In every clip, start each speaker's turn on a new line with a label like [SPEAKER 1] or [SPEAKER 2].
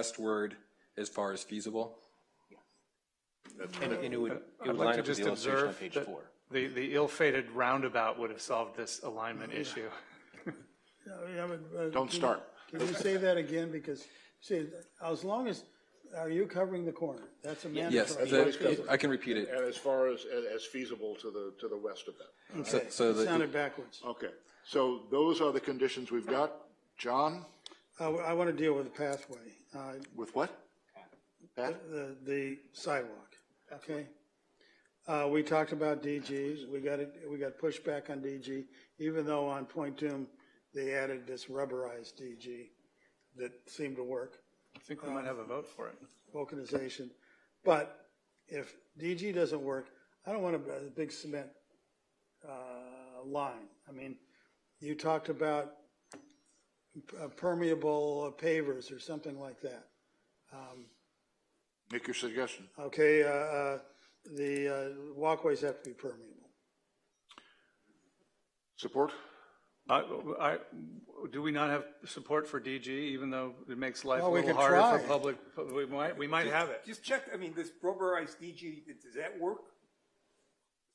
[SPEAKER 1] westward as far as feasible?
[SPEAKER 2] And and it would, it would
[SPEAKER 3] like
[SPEAKER 2] line
[SPEAKER 3] to
[SPEAKER 2] up with the
[SPEAKER 3] just
[SPEAKER 2] illustration on
[SPEAKER 3] observe
[SPEAKER 2] page
[SPEAKER 3] that-
[SPEAKER 2] four.
[SPEAKER 3] The, the ill-fated roundabout would have solved this alignment issue.
[SPEAKER 4] Yeah, but, uh,
[SPEAKER 5] Don't
[SPEAKER 4] can-
[SPEAKER 5] start.
[SPEAKER 4] Can you say that again, because, see, as long as, are you covering the corner? That's a
[SPEAKER 1] Yes,
[SPEAKER 4] mandatory.
[SPEAKER 1] the- I can repeat it.
[SPEAKER 5] And as far as, as feasible to the, to the west of that.
[SPEAKER 1] So- So
[SPEAKER 4] It
[SPEAKER 1] the
[SPEAKER 4] Sounded backwards.
[SPEAKER 5] Okay, so those are the conditions we've got. John,
[SPEAKER 4] I, want to deal with the pathway, uh,
[SPEAKER 5] with what? Pat?
[SPEAKER 4] the, the sidewalk, okay? Uh, we talked about DG, we got it, we got pushback on DG, even though on Point Doom, they added this rubberized DG that seemed to work.
[SPEAKER 3] I think we might have a vote for it.
[SPEAKER 4] vulcanization. But if DG doesn't work, I don't want a, a big cement, uh, line. I mean, you talked about uh, permeable pavers or something like that.
[SPEAKER 5] Make your suggestion.
[SPEAKER 4] Okay, uh, uh, the uh, walkways have to be permeable.
[SPEAKER 5] Support?
[SPEAKER 3] I, I, do we not have support for DG, even though it makes life a
[SPEAKER 4] Well, we
[SPEAKER 3] little
[SPEAKER 4] could
[SPEAKER 3] harder for
[SPEAKER 4] try.
[SPEAKER 3] public, we might, we might have it.
[SPEAKER 6] Just check, I mean, this rubberized DG, does that work?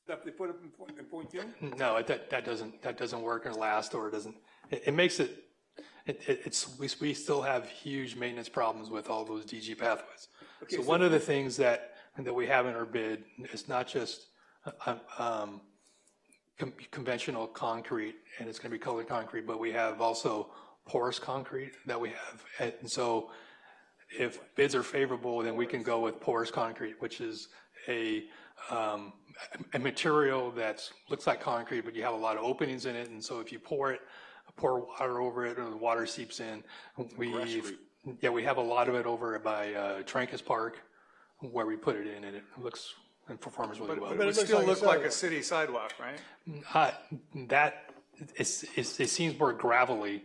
[SPEAKER 6] Stuff they put up in point, in point two?
[SPEAKER 7] No, it- that, that doesn't, that doesn't work or last, or it doesn't, it, it makes it, it, it- it's, we, we still have huge maintenance problems with all those DG pathways. So one of the things that, that we have in our bid is not just, um, um, con- conventional concrete, and it's gonna be colored concrete, but we have also porous concrete that we have. And so if bids are favorable, then we can go with porous concrete, which is a, um, a a material that's, looks like concrete, but you have a lot of openings in it, and so if you pour it, pour water over it, and the water seeps in, we, yeah, we have a lot of it over by, uh, Trancas Park, where we put it in, and it looks and performs really well.
[SPEAKER 3] Oh, But it would
[SPEAKER 4] looks
[SPEAKER 3] still
[SPEAKER 4] like a
[SPEAKER 3] look like a
[SPEAKER 4] sidewalk.
[SPEAKER 3] city sidewalk, right?
[SPEAKER 7] Uh, that is, is, it seems more gravelly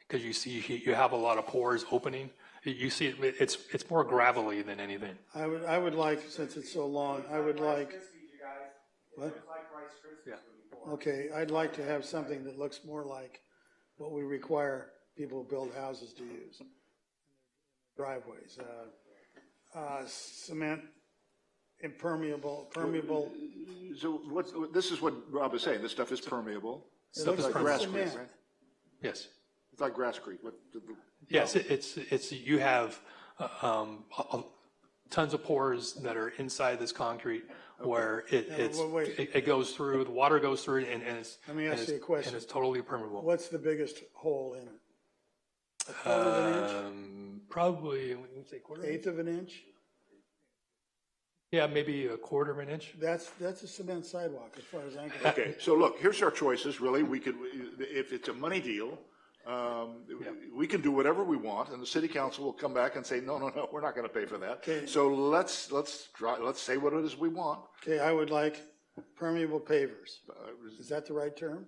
[SPEAKER 7] because you see, you have a lot of pores opening. You see, it- it's, it's more gravelly than anything.
[SPEAKER 4] I would, I would like, since it's so long, I would like, What? okay, I'd like to have something that looks more like what we require people who build houses to use. Driveways, uh, uh, cement, impermeable, permeable,
[SPEAKER 5] So what, what- this is what Rob is saying, this stuff is permeable.
[SPEAKER 4] it looks
[SPEAKER 5] Like
[SPEAKER 4] like
[SPEAKER 5] grass creek,
[SPEAKER 4] cement.
[SPEAKER 5] right?
[SPEAKER 7] Yes.
[SPEAKER 5] It's like grass creek. What, the- the-
[SPEAKER 7] Yes, it- it's, it's, you have, um, a- a- tons of pores that are inside this concrete where it, it's,
[SPEAKER 4] well, wait.
[SPEAKER 7] it it goes through, the water goes through and, and it's.
[SPEAKER 4] Let me
[SPEAKER 7] and
[SPEAKER 4] ask
[SPEAKER 7] it's-
[SPEAKER 4] you a question.
[SPEAKER 7] And it's totally permeable.
[SPEAKER 4] What's the biggest hole in it? A quarter of an
[SPEAKER 5] Uh,
[SPEAKER 4] inch,
[SPEAKER 7] Um, probably, what did we say, quarter?
[SPEAKER 4] eighth of an inch?
[SPEAKER 7] Yeah, maybe a quarter of an inch.
[SPEAKER 4] That's, that's a cement sidewalk as far as I'm concerned.
[SPEAKER 5] Okay, so look, here's our choices, really. We could, if it's a money deal, um, we can do whatever we want, and the city council will come back and say, no, no, no, we're not gonna pay for that. So let's, let's, try- let's say what it is we want.
[SPEAKER 4] Okay, I would like permeable pavers. Is that the right term?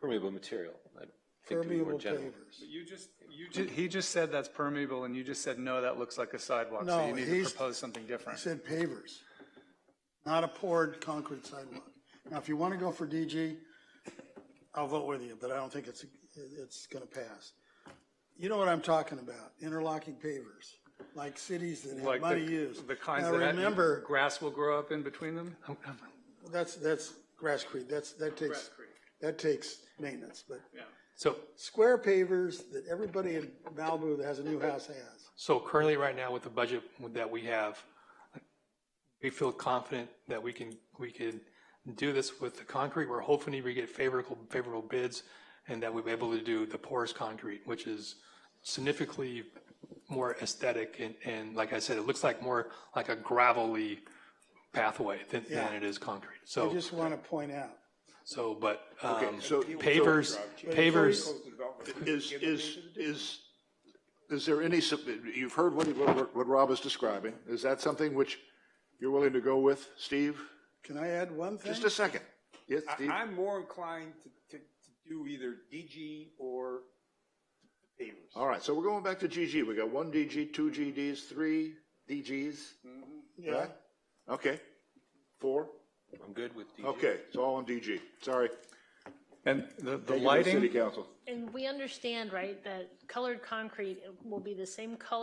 [SPEAKER 2] Permeable material. I think to be more
[SPEAKER 4] Permeable
[SPEAKER 2] general.
[SPEAKER 4] pavers.
[SPEAKER 3] You just, you just, he just said that's permeable, and you just said, no, that looks like a sidewalk, so
[SPEAKER 4] No,
[SPEAKER 3] you need to
[SPEAKER 4] he's-
[SPEAKER 3] propose something different.
[SPEAKER 4] I said pavers, not a poured concrete sidewalk. Now, if you want to go for DG, I'll vote with you, but I don't think it's, it's going to pass. You know what I'm talking about, interlocking pavers, like cities that have
[SPEAKER 3] Like
[SPEAKER 4] money
[SPEAKER 3] the-
[SPEAKER 4] use.
[SPEAKER 3] The kinds
[SPEAKER 4] Now,
[SPEAKER 3] that.
[SPEAKER 4] remember-
[SPEAKER 3] Grass will grow up in between them?
[SPEAKER 4] That's, that's grasscrete, that's, that takes, that takes maintenance, but
[SPEAKER 7] So,
[SPEAKER 4] square pavers that everybody in Malibu that has a new house has.
[SPEAKER 7] so currently, right now, with the budget that we have, we feel confident that we can, we can do this with the concrete. We're hoping we get favorable, favorable bids and that we'll be able to do the porous concrete, which is significantly more aesthetic and, and like I said, it looks like more like a gravelly pathway than, than it is concrete.
[SPEAKER 4] I
[SPEAKER 7] So,
[SPEAKER 4] just want to point out,
[SPEAKER 7] so, but, um,
[SPEAKER 5] so-
[SPEAKER 7] pavers, pavers.
[SPEAKER 5] Is, is, is, is there any, sub- you've heard what, what, what Rob is describing. Is that something which you're willing to go with, Steve?
[SPEAKER 4] can I add one thing?
[SPEAKER 5] Just a second. Yes,
[SPEAKER 6] I,
[SPEAKER 5] Steve?
[SPEAKER 6] I'm more inclined to, to, to do either DG or pavers.
[SPEAKER 5] All right, so we're going back to GG. We got one DG, two GDs, three DGs,
[SPEAKER 6] Mm-hmm.
[SPEAKER 4] Yeah.
[SPEAKER 5] right? Okay, four?
[SPEAKER 2] I'm good with DG.
[SPEAKER 5] Okay, it's all on DG. Sorry.
[SPEAKER 3] And the, the
[SPEAKER 5] Take it to the
[SPEAKER 3] lighting?
[SPEAKER 5] City Council.
[SPEAKER 8] And we understand, right, that colored concrete will be the same color